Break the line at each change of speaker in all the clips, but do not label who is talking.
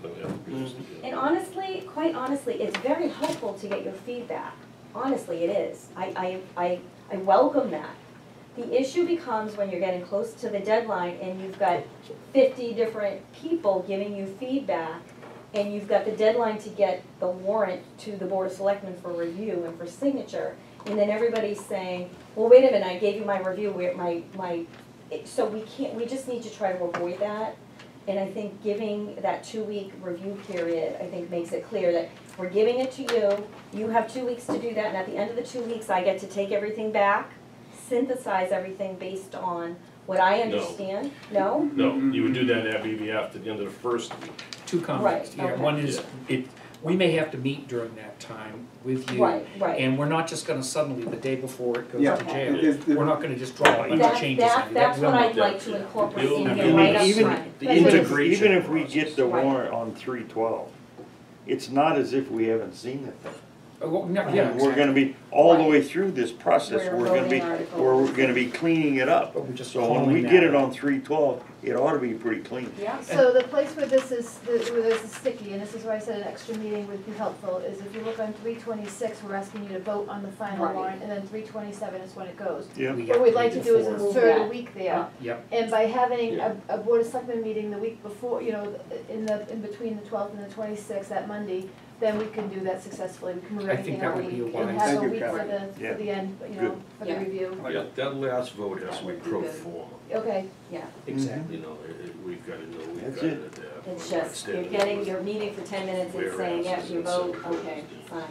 Mm-hmm.
And honestly, quite honestly, it's very helpful to get your feedback. Honestly, it is. I, I, I, I welcome that. The issue becomes when you're getting close to the deadline and you've got fifty different people giving you feedback and you've got the deadline to get the warrant to the board of selectmen for review and for signature. And then everybody's saying, well, wait a minute, I gave you my review, where my, my, it- so we can't, we just need to try to avoid that. And I think giving that two-week review period, I think makes it clear that we're giving it to you, you have two weeks to do that, and at the end of the two weeks, I get to take everything back, synthesize everything based on what I
No.
understand, no?
No, you would do that at BVF at the end of the first week.
Two comments
Right,
here.
okay.
One is, it, we may have to meet during that time with you.
Right, right.
And we're not just gonna suddenly, the day before it goes
Yeah.
to jail,
It- it-
we're not gonna just draw a bunch of
That-
changes.
that-
in it. That
that's
will
what
not-
I'd like to incorporate
It'll-
in
I
here
mean,
right up
even-
front.
The
Even if,
integration
even if we get the
process.
warrant on three twelve, it's not as if we haven't seen the thing.
Uh, well, no, yeah,
And We're
exactly.
gonna be, all the
Right.
way through this process,
We're
we're gonna be,
voting articles.
we're gonna be cleaning it up.
But we're just
So when
calling
we
that
get it
out.
on three twelve, it ought to be pretty clean.
Yeah.
So the place where this is, the- where this is sticky, and this is where I said an extra meeting would be helpful, is if you look on three twenty-six, we're asking you to vote on the final
Right.
warrant, and then three twenty-seven is when it goes.
Yeah.
We have
What
to
we'd like
meet
to do is
before.
Move
insert a
that
week there,
Yep,
and by having a, a board of selectmen meeting the week before, you know, in the, in between the twelfth and the twenty-sixth, that Monday, then we can do that successfully, we can move
I think
everything
that
out a
would be
week,
a
and
wise-
have
Thank
a
you,
week for
Karen.
the,
Yeah.
for the end, you know,
Good.
for the
Yeah.
review.
Yeah, that last vote has to be pro forma,
Okay,
Yeah,
exactly.
you know, it- it- we've got to know, we've
That's
got to.
it.
adapt.
it's
We're not
just, you're
standing
getting
with-
your meeting for ten minutes and saying, yes, you vote, okay, fine,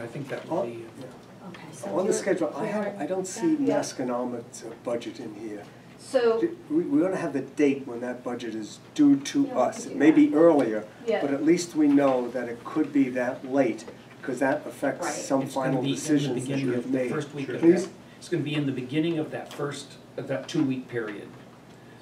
I think that would
On
be, uh,
okay, so.
on the
you're-
schedule, I have, I don't see
Yeah.
Masconomic's uh, budget in here.
so,
Do- We, we ought to have the date when that budget is due to
Yeah, we
us.
could
It
do
may be earlier,
Yeah.
but at least we know that it could be that late, because that affects
Right.
some
it's gonna
final
be in the
decisions that
beginning
you
of
have
the
made.
first week of
Please?
that, it's gonna be in the beginning of that first, of that two-week period.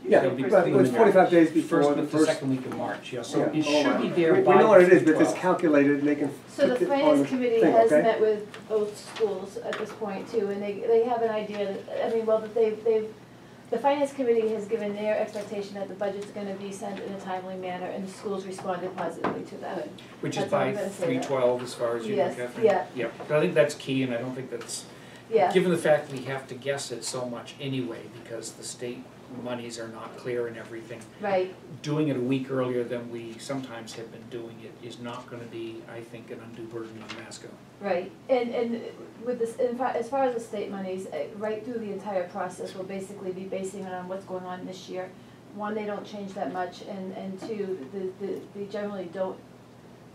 Yeah,
It'll be
but
clean
it's
in
forty-five
March.
days before the
week,
first.
second week of March, yeah, so
Yeah.
it
Oh,
should be
wow.
there
We-
by.
We know what it is, but
April
it's
12th.
calculated, and they can
So the
put it on the
finance committee
thing,
has
okay?
met with both schools at this point too, and they, they have an idea, that- I mean, well, that they've, they've, the finance committee has given their expectation that the budget's gonna be sent in a timely manner, and the schools responded positively to that.
Which is
That's what
by
I'm gonna say
three
that.
twelve, as far as you know,
Yes,
Catherine?
yeah.
Yeah, but I think that's key, and I don't think that's,
Yeah,
given the fact we have to guess it so much anyway, because the state monies are not clear and everything,
right,
doing it a week earlier than we sometimes have been doing it is not gonna be, I think, an undue burden on Masco.
right, and, and with this, in fa- as far as the state monies, eh, right through the entire process, we'll basically be basing it on what's going on this year. One, they don't change that much, and, and two, the, the, they generally don't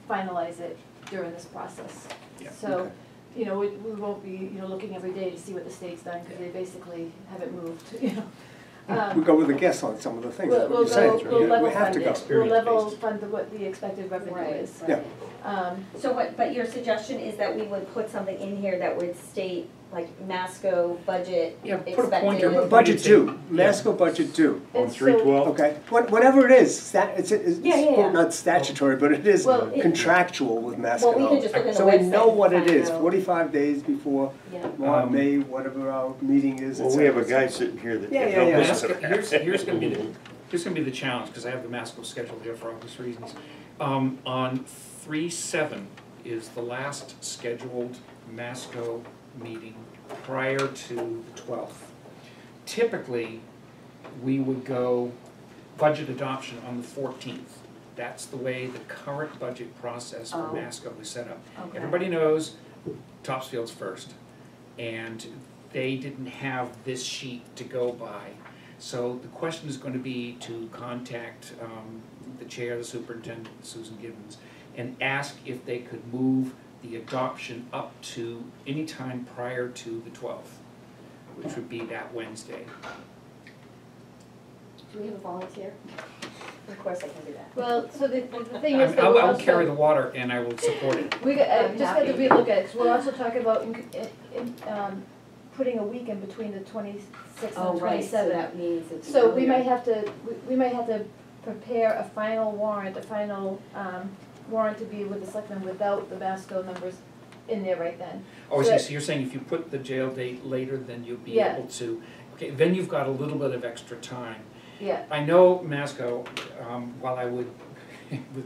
finalize it during this process.
Yeah.
So,
Okay.
you know, we, we won't be, you know, looking every day to see what the state's done, because they basically haven't moved, you know. Um,
We go with a guess on some of the things,
We'll,
that's what
we'll
you're saying,
go,
it's
we'll
really-
level
we have
fund
to go.
it, we'll level
Experience-based.
fund the- what the expected revenue
Right,
is.
Yeah.
right.
Um,
So what, but your suggestion is that we would put something in here that would state, like, Masco budget
Yeah, put a
expected?
pointer.
Your Budget due,
Yeah.
Masco budget due,
On
And so-
three twelve,
okay? What- Whatever it is, stat, it's, it's,
Yeah, yeah, yeah.
it's not statutory, but it is
Well, it-
contractual with Masco.
Well, we can just look in the
So we
website
know
and
what it
find
is,
out.
forty-five days before,
Yeah.
March,
Um,
May, whatever our meeting is, et
well, we have a
cetera.
guy sitting here that.
Yeah, yeah,
no
yeah.
business
Masco,
at-
here's, here's gonna be the, here's gonna be the challenge, because I have the Masco schedule here for obvious reasons. Um, on three seven is the last scheduled Masco meeting prior to the twelfth. Typically, we would go budget adoption on the fourteenth. That's the way the current budget process for
Oh.
Masco is set up.
Okay.
Everybody knows Topsfield's first, and they didn't have this sheet to go by. So the question is gonna be to contact um, the chair, the superintendent, Susan Gibbons, and ask if they could move the adoption up to any time prior to the twelfth, which would be that Wednesday.
Do we have a volunteer? Of course I can do that.
well, so the, the thing is
I'm-
that
I'll,
we're
I'll carry the
also,
water and I will support it.
we, got- I
I'm
just had to
happy.
relook at it, 'cause we're also talking about in, in, um, putting a week in between the twenty-sixth
Oh,
and
right, so
twenty-seventh.
that means it's.
So we
earlier.
might have to, we- we might have to prepare a final warrant, a final um, warrant to be with the selectmen without the Vasco numbers in there right then.
Oh, I see,
Right.
so you're saying if you put the jail date later, then you'll be
Yeah.
able to, okay, then you've got a little bit of extra time.
Yeah,
I know Masco, um, while I would, with